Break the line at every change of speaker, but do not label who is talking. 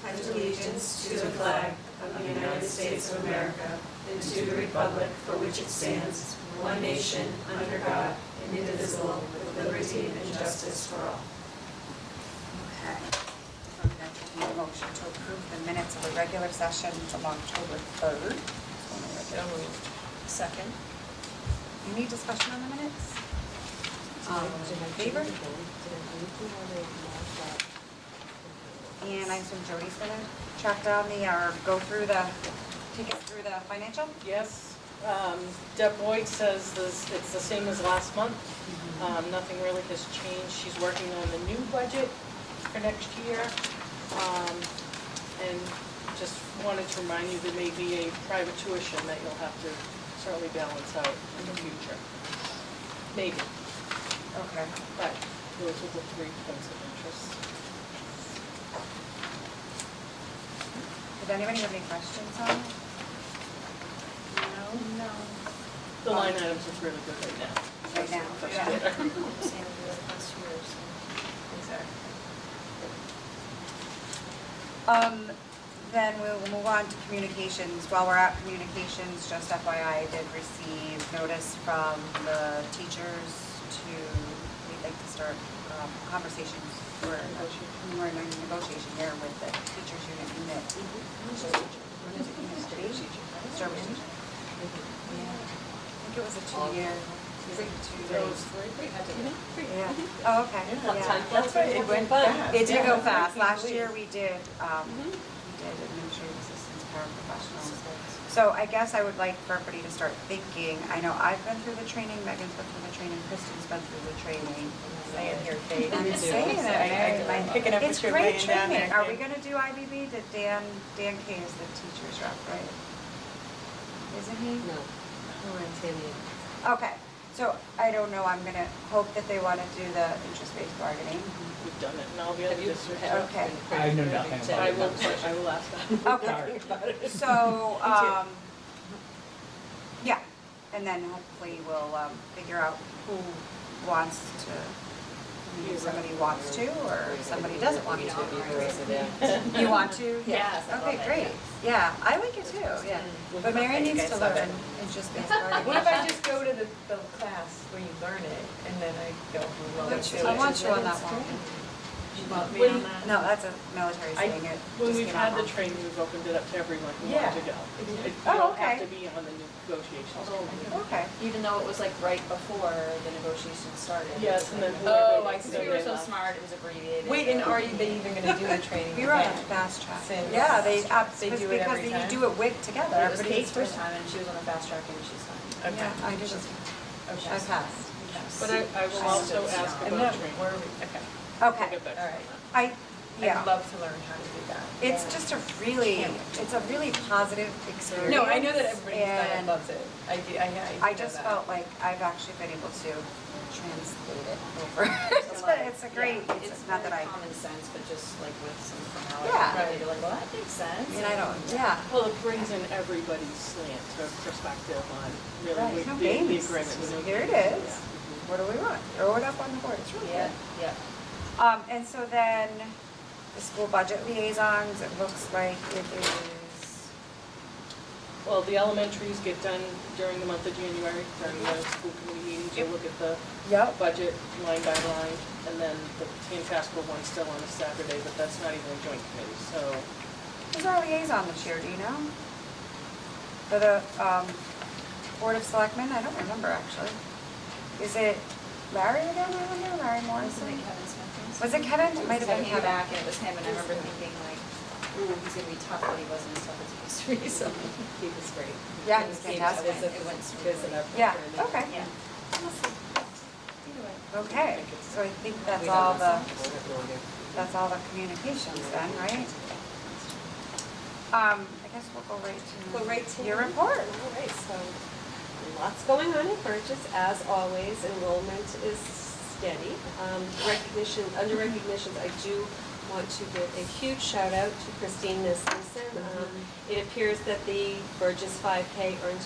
pledge allegiance to the flag of the United States of America and to the republic for which it stands, one nation, under God, indivisible, with liberty and justice for all.
Okay. I'm going to need a motion to approve the minutes of the regular session of October 3rd.
Second.
Any discussion on the minutes?
Um,
All in favor? And I assume Jody's going to track down the, or go through the, take us through the financial?
Yes, um, Deb Boyd says this, it's the same as last month.
Mm-hmm.
Um, nothing really has changed. She's working on the new budget for next year. Um, and just wanted to remind you, there may be a private tuition that you'll have to certainly balance out in the
Mm-hmm.
future. Maybe,
Okay.
but those are the three points of interest.
Did anybody have any questions on it? No? No.
The line items look really good right now.
Um, Right now,
That's
yeah.
better.
Um, then we will move on to communications. While we're at communications, just FYI, I did receive notice from the teachers to, we'd like to start um, conversations for, we're in a negotiation here with the teachers union unit. What is it, unit three? Service teacher. I think it was a two-year. Is it two
Those
days?
three.
Yeah. Oh, okay. Yeah.
That's right, it went by.
It did go fast. Last year, we did, um,
Mm-hmm.
we did administrative assistants, paraprofessionals. So I guess I would like for everybody to start thinking, I know I've been through the training, Megan's been through the training, Kristen's been through the training. Saying here, Kate. I'm saying it, man.
I'm picking up
It's
what you're
great
laying down
training.
there.
Are we gonna do IBB? Did Dan, Dan K is the teacher's rep, right? Isn't he? Okay, so I don't know, I'm gonna hope that they wanna do the interest-based bargaining.
We've done it, and all the other districts have.
Okay.
I know nothing about
I
it.
will, I will ask that.
Okay, so, um, yeah, and then hopefully we'll, um, figure out who wants to, I mean, if somebody wants to, or if somebody doesn't want to. You want to?
Yes, I love
Okay,
it,
great, yeah, I like it too, yeah, but Mary
You
needs to
guys love
learn
it.
interest-based
What if I
bargaining.
just go to the, the class where you learn it and then I go, well, let's do it?
I want you on that one.
When-
No, that's a military
I-
thing, it
When
just
we've
came out
had the
wrong.
training, we've opened it up to everyone who
Yeah.
wanted to go. It- You
Oh,
don't have
okay. Oh,
to be on the negotiations.
Okay,
Even though it was like right before the negotions started.
Yes, and then
Oh,
whoever
I
they
see.
go
Because we were
with.
so smart, it was abbreviated.
Wait, and are you they even gonna do the training?
we were on a fast track.
Since-
Yeah, they, abs-
They do
because
it every
you
time?
do it with together,
It was
everybody's
Kate's first time and she was on the fast track and she's fine.
Yeah, I did it.
Okay.
I passed.
But I, I will also ask
And
about
then,
training.
where are we,
We'll
Okay,
get back to
all
you on
right.
I,
I'd
yeah,
love to learn how to do that.
it's just a really, it's a really positive experience.
No, I know that everybody's done it,
and
loves it. I do, I, I know
I just
that.
felt like I've actually been able to translate it over. But it's a great, it's not that I,
It's very common sense, but just like with some formality.
Yeah.
You're like, well, that makes
I
sense.
mean, I don't, yeah.
that. Well, it brings in everybody's slant or perspective on
Right,
really
no
what the, the
games.
agreement was.
Here it is. What do we want? Throw it up on the board, it's really
Yeah,
good.
yeah.
Um, and so then, the school budget liaisons, it looks like it is,
Well, the elementaries get done during the month of January, during the
Mm-hmm.
school committee meetings, you look at the
yep,
budget line by line, and then the Tantascwa one's still on a Saturday, but that's not even a joint committee, so.
Who's our liaison this year, do you know? For the, um, Board of Selectmen, I don't remember actually. Is it Larry again, I wonder, Larry
Wasn't
Morrison?
it Kevin Smith?
Was it Kevin? It might have been
He came
Kevin.
back and it was him and I remember thinking like, ooh, he's gonna be tough, but he wasn't as tough as he used to be, so he was great.
Yeah, he's
It
fantastic.
went- It went smoothly.
Yeah, okay,
Yeah.
okay, so I think that's all the, that's all the communications then, right? Um, I guess we'll go right to.
Go right to
Your
me.
report.
All right, so lots going on in Burgess, as always, enrollment is steady. Um, Recognition, under recognitions, I do want to give a huge shout out to Christine Nissen. Um, It appears that the Burgess 5K earned